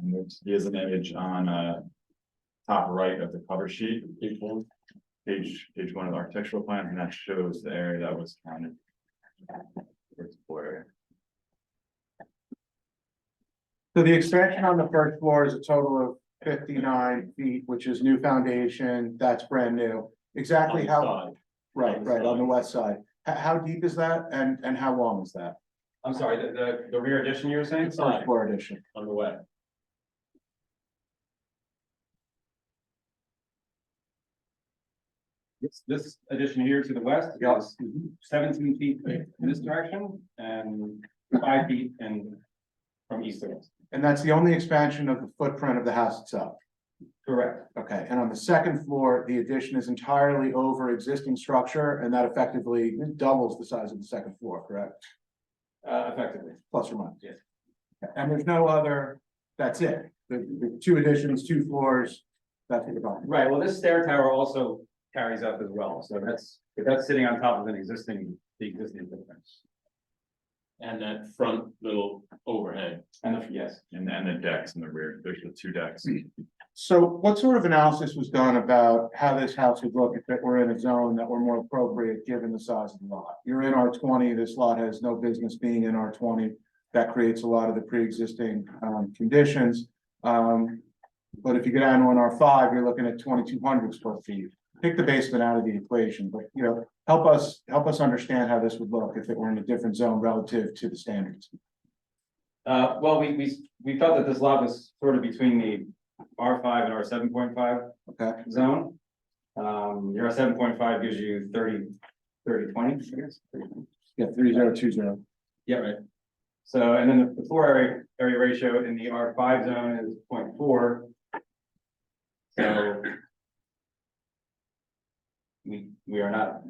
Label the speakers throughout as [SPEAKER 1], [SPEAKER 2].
[SPEAKER 1] and here's an image on, uh. Top right of the cover sheet. Page one. Page, page one of the architectural plan, and that shows the area that was counted. For floor area.
[SPEAKER 2] So the expansion on the first floor is a total of fifty-nine feet, which is new foundation, that's brand new. Exactly how,
[SPEAKER 3] Outside.
[SPEAKER 2] right, right, on the west side. How, how deep is that and, and how long is that?
[SPEAKER 1] I'm sorry, the, the, the rear addition you were saying?
[SPEAKER 2] First floor addition.
[SPEAKER 3] On the way.
[SPEAKER 1] This, this addition here to the west
[SPEAKER 2] Yeah.
[SPEAKER 1] is seventeen feet in this direction and five feet in from east to west.
[SPEAKER 2] And that's the only expansion of the footprint of the house itself.
[SPEAKER 1] Correct,
[SPEAKER 2] Okay, and on the second floor, the addition is entirely over existing structure and that effectively doubles the size of the second floor, correct?
[SPEAKER 1] uh, effectively.
[SPEAKER 2] Plus or minus?
[SPEAKER 1] Yes.
[SPEAKER 2] Okay, And there's no other, that's it. The, the two additions, two floors, that's it.
[SPEAKER 1] Right, well, this stair tower also carries up as well, so that's, that's sitting on top of an existing, the existing footprint.
[SPEAKER 3] And that front little overhang.
[SPEAKER 1] And the, yes.
[SPEAKER 4] And then the decks in the rear, there's the two decks.
[SPEAKER 2] So what sort of analysis was done about how this house would look if it were in a zone that were more appropriate, given the size of the lot? You're in R twenty, this lot has no business being in R twenty. That creates a lot of the pre-existing um conditions. Um, but if you go down to an R five, you're looking at twenty-two hundred square feet. Take the basement out of the equation, but you know, help us, help us understand how this would look if it were in a different zone relative to the standards.
[SPEAKER 1] Uh, well, we, we, we felt that this lot was sort of between the R five and R seven point five.
[SPEAKER 2] Okay.
[SPEAKER 1] Zone. Um, your seven point five gives you 30 30 20, I guess.
[SPEAKER 2] Yeah, three zero two zero.
[SPEAKER 1] Yeah, right. So, and then the floor area, area ratio in the R five zone is 0.4. So. We, we are not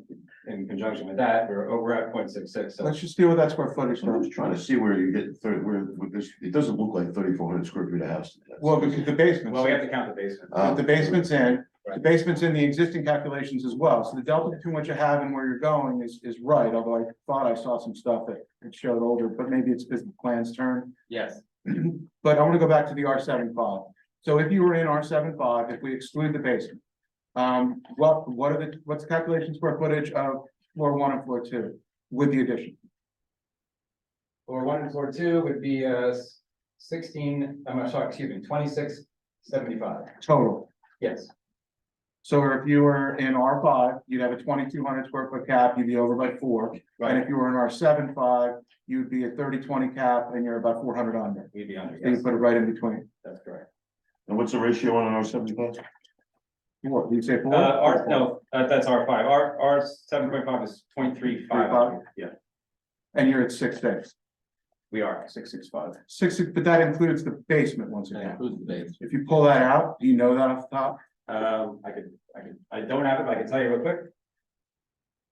[SPEAKER 1] in conjunction with that, we're over at 0.66. so
[SPEAKER 2] Let's just deal with that square footage.
[SPEAKER 5] So I was trying to see where you get thirty, where, where this, it doesn't look like thirty-four hundred square feet of house. Uh,
[SPEAKER 2] Well, because the basement.
[SPEAKER 1] well, we have to count the basement.
[SPEAKER 5] Um,
[SPEAKER 2] But the basement's in, the
[SPEAKER 1] Right.
[SPEAKER 2] basement's in the existing calculations as well, so the delta between what you have and where you're going is, is right, although I thought I saw some stuff that it showed older, but maybe it's business plan's turn.
[SPEAKER 1] Yes,
[SPEAKER 2] But I wanna go back to the R 75 so if you were in R 75 if we exclude the basement. Um, what, what are the, what's the calculation square footage of floor one and floor two with the addition?
[SPEAKER 1] floor one and floor two would be, uh, sixteen, I'm sorry, excuse me, twenty-six seventy-five,
[SPEAKER 2] Total,
[SPEAKER 1] yes.
[SPEAKER 2] so if you were in R five, you'd have a twenty-two hundred square foot cap, you'd be over by four. And if you were in R 75 five, you'd be a thirty twenty cap and you're about four hundred under.
[SPEAKER 1] We'd be under,
[SPEAKER 2] So you
[SPEAKER 1] yes,
[SPEAKER 2] put it right in between.
[SPEAKER 1] that's correct.
[SPEAKER 5] And what's the ratio on an R seventy-five?
[SPEAKER 2] What, you say four?
[SPEAKER 1] Uh, R, no, uh, that's R five, R, R seven point five is 0.35. yeah,
[SPEAKER 2] And you're at six six.
[SPEAKER 1] we are, six, six, five.
[SPEAKER 2] Six, but that includes the basement once again.
[SPEAKER 3] Who's the base?
[SPEAKER 2] If you pull that out, do you know that off the top?
[SPEAKER 1] Um, I could, I could, I don't have it, but I can tell you real quick,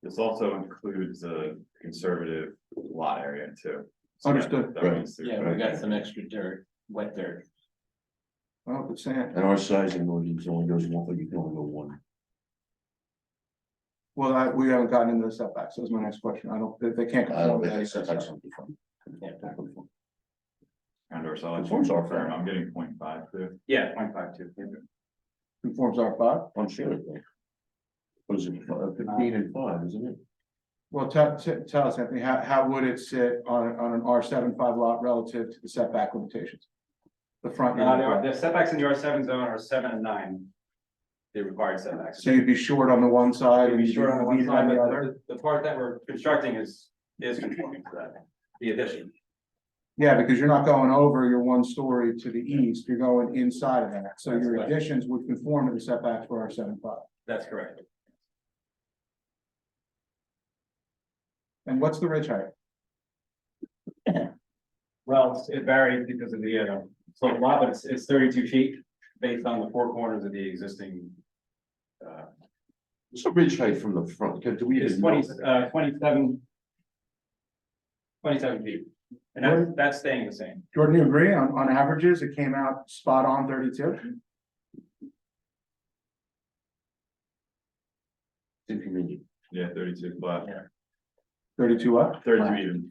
[SPEAKER 4] This also includes a conservative lot area too. So that-
[SPEAKER 2] Understood.
[SPEAKER 4] That means. there's-
[SPEAKER 3] Yeah, we got some extra dirt, wet dirt.
[SPEAKER 2] Oh, it's saying,
[SPEAKER 5] And our sizing ordinance only goes one, but you can only go one.
[SPEAKER 2] well, I- we haven't gotten into the setbacks. That was my next question. I don't, they, they can't.
[SPEAKER 5] I
[SPEAKER 2] conform
[SPEAKER 5] don't
[SPEAKER 2] to that
[SPEAKER 5] think that's that's
[SPEAKER 2] setback.
[SPEAKER 5] something. from-
[SPEAKER 3] Yeah.
[SPEAKER 4] Outdoor solid.
[SPEAKER 5] Conforms our firm.
[SPEAKER 4] I'm getting 0.5 too.
[SPEAKER 1] yeah, 0.52.
[SPEAKER 2] Conforms R five.
[SPEAKER 5] I'm sure. it will. What is it, uh, fifteen and five, isn't it?
[SPEAKER 2] Well, tell, t- tell us, Anthony, how, how would it sit on, on an R 75 lot relative to the setback limitations? The front.
[SPEAKER 1] Uh,
[SPEAKER 2] yard.
[SPEAKER 1] there are, the setbacks in the R seven zone are seven and nine. The required setbacks.
[SPEAKER 2] So you'd be short on the one side
[SPEAKER 1] It'd
[SPEAKER 2] and
[SPEAKER 1] be
[SPEAKER 2] you'd be
[SPEAKER 1] short on the one
[SPEAKER 2] leaning
[SPEAKER 1] side,
[SPEAKER 2] on
[SPEAKER 1] but
[SPEAKER 2] the other?
[SPEAKER 1] the, the part that we're constructing is, is conforming to that, the addition.
[SPEAKER 2] Yeah, because you're not going over your one story to the east, you're going inside of that, so your
[SPEAKER 1] That's right.
[SPEAKER 2] additions would conform to the setback for our seven five.
[SPEAKER 1] That's correct.
[SPEAKER 2] And what's the ridge height?
[SPEAKER 1] Well, it's- it varies because of the, uh, so a lot, but it's, it's thirty-two feet based on the four corners of the existing. Uh,
[SPEAKER 5] What's the ridge height from the front? Can- Do we?
[SPEAKER 1] it's
[SPEAKER 5] even know?
[SPEAKER 1] twenty, uh, twenty-seven. Twenty-seven feet, and that's, that's staying the same.
[SPEAKER 2] Jordan, you agree on, on averages, it came out spot on thirty-two?
[SPEAKER 5] Inconvenient.
[SPEAKER 4] Yeah, thirty-two flat,
[SPEAKER 2] Thirty-two up?
[SPEAKER 4] thirty-two even.